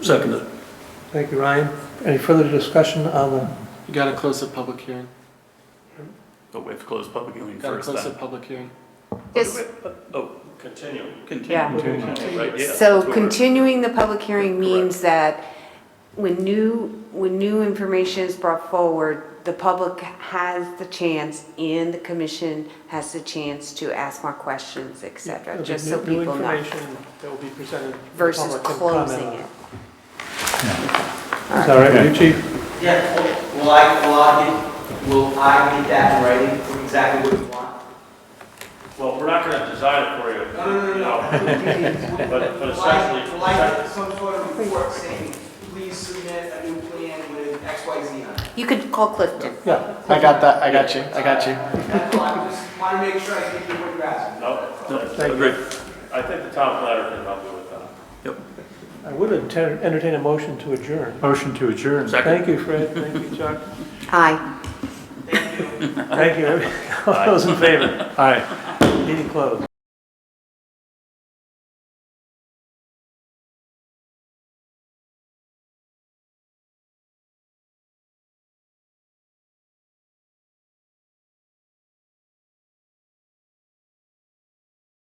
Second it. Thank you, Ryan. Any further discussion on the, You gotta close the public hearing. Oh, we have to close public hearing Gotta first close the then. public hearing. Yes, Oh. Continue. Yeah. Continue, right, yeah. so that's what we're- continuing the public hearing Correct. means that when new, when new information is brought forward, the public has the chance and the commission has the chance to ask more questions, et cetera, There'll be just new- so new people know, information That will be presented. to the versus public and comment closing on it. Is that all right with you, chief? Yeah, will- will I, will I get, will I get that in writing from exactly what you want? Well, we're not gonna design it for you. you know, no. But, but essentially, Will I get some sort of report saying, please submit a new plan with X, Y, Z on it? You could call Clifton. Yeah. I got that. I got you. I got you. That's all, I just want to make sure I give you what you're asking. no, Thank you. Agreed. I think the town planner can help you with that. I would enter- entertain a motion to adjourn. Motion to adjourn. Second. Thank you, Fred. Thank you, Chuck. Aye. Thank you. All those in favor? Aye. Meeting closed.